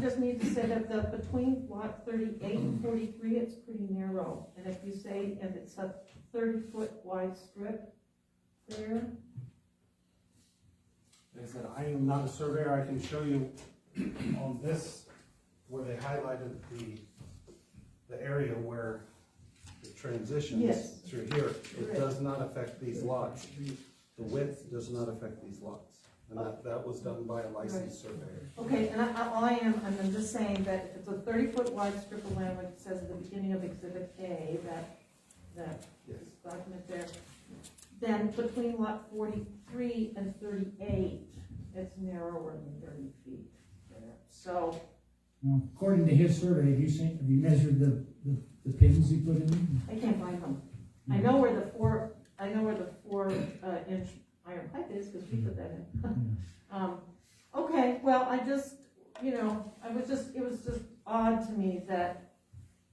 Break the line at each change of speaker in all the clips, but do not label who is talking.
just need to say that the, between lot thirty-eight and forty-three, it's pretty narrow. And if you say, and it's a thirty-foot wide strip there,
Like I said, I am not a surveyor, I can show you on this, where they highlighted the, the area where it
Yes.
transitions through here. It
Right.
does not affect these lots. The width does not affect these lots. And that, that was done by a licensed surveyor.
Okay, and I, I- all I am, and I'm just saying that if it's a thirty-foot wide strip of land, like it says at the beginning of exhibit A, that, that
Yes.
document there, then between lot forty-three and thirty-eight, it's narrower than thirty feet there. So,
Now, according to his survey, have you seen, have you measured the, the, the pins he put in?
I can't find them. I know where the four, I know where the four, uh, inch iron pipe is, because we put that in. Um, okay, well, I just, you know, I was just, it was just odd to me that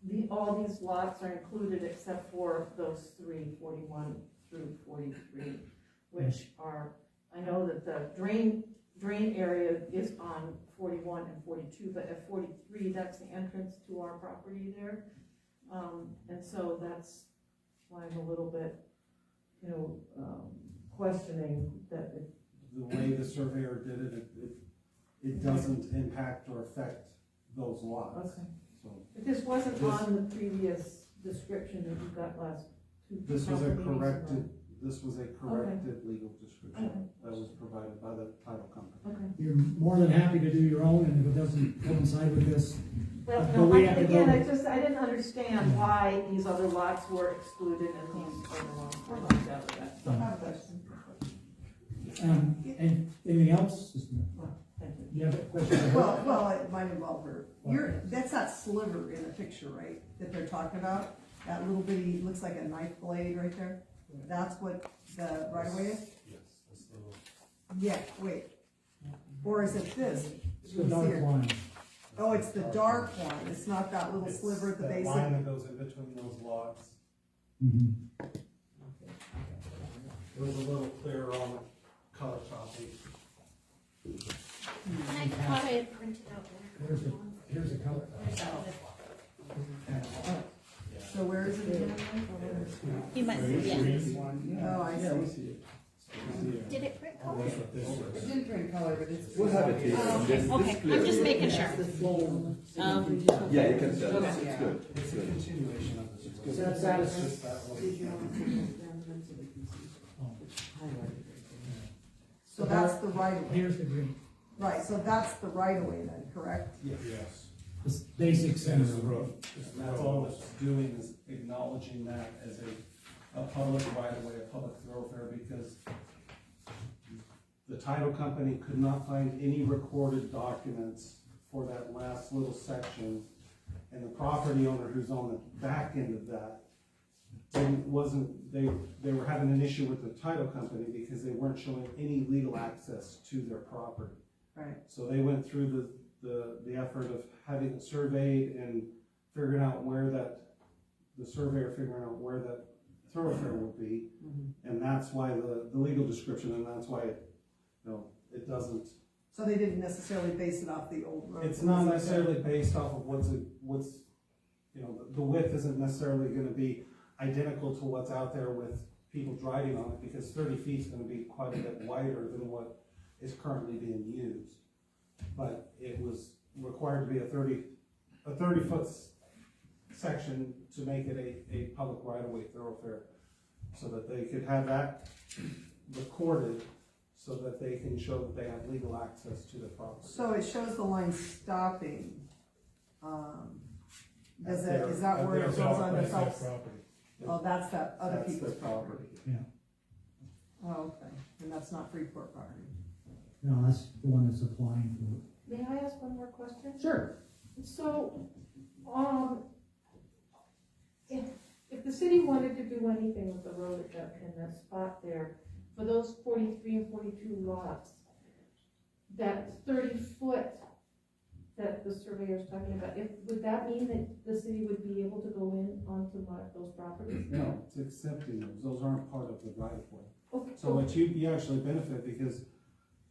the, all these lots are included except for those three, forty-one through forty-three, which are, I know that the drain, drain area is on forty-one and forty-two, but at forty-three, that's the entrance to our property there. Um, and so that's why I'm a little bit, you know, um, questioning that it
The way the surveyor did it, it- it, it doesn't impact or affect those lots.
Okay.
So
But this wasn't
This-
on the previous description that you got last two.
this was
couple
a
meetings ago.
corrected, this was a corrected legal description that was provided by the title company.
Okay.
You're more than happy to do your own, and if it doesn't coincide with this,
Well,
But
no, I,
we have to
again,
go-
I just, I didn't
Mm-hmm.
understand why these other lots were excluded and these other ones were left out of that. So I have a question.
um, and anything else? Just a minute.
Thank you.
You have a question?
Well, well, it might involve her. You're, that's that sliver in the picture, right, that they're talking about? That little bitty, looks like a knife blade right there? That's what the right of way is?
Yes, this little.
Yeah, wait.
Mm-hmm.
Or is it this?
It's the dark line.
Oh, it's the dark one. It's not that little
It's
sliver at the
That line that
base.
goes in between those lots,
Mhm.
it was a little clearer on the color copy.
I thought I had printed out there.
Here's the, here's the color.
Where's that one?
So where is it again?
You must, yeah.
Oh, I see.
Did it print color?
It didn't print color, but it's.
We'll have it here.
Um,
It's- it's
Okay,
clear.
I'm just making sure. Um,
Yeah, you can tell, it's
Okay.
it's good, it's
It's a
good.
continuation of this.
Does that satisfy-
It's just that one.
Oh.
So that's the right of way.
Here's the green,
Right, so that's the right of way then, correct?
Yes.
this basic center of the road.
That's all it's doing is acknowledging that as a, a public right of way, a public thoroughfare, because the title company could not find any recorded documents for that last little section. And the property owner who's on the back end of that didn't, wasn't, they, they were having an issue with the title company because they weren't showing any legal access to their property.
Right.
So they went through the, the, the effort of having it surveyed and figuring out where that, the surveyor figuring out where that thoroughfare would be. And that's why the, the legal description, and that's why, it, you know, it doesn't,
So they didn't necessarily base it off the old road.
it's not necessarily based off of what's, a- what's, you know, the- the width isn't necessarily gonna be identical to what's out there with people driving on it, because thirty feet's gonna be quite a bit wider than what is currently being used. But it was required to be a thirty, a thirty-foot section to make it a, a public right-of-way thoroughfare, so that they could have that recorded, so that they can show that they have legal access to the property.
So it shows the line stopping. Um, Does
At
it,
their-
is that
at
where it
their
goes on
property.
the self? Oh, that's that other
That's their
people's property.
Yeah,
Oh, okay, and that's not Freeport property.
no, that's the one that's applying for it.
May I ask one more question?
Sure.
So, um, if, if the city wanted to do anything with the road at that, in that spot there, for those forty-three and forty-two lots, that thirty foot that the surveyor's talking about, if, would that mean that the city would be able to go in onto lot, those properties?
No, it's accepting those, those aren't part of the right of way.
Okay,
So what you, you actually benefit because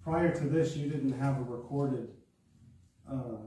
prior to this, you didn't have a recorded, uh,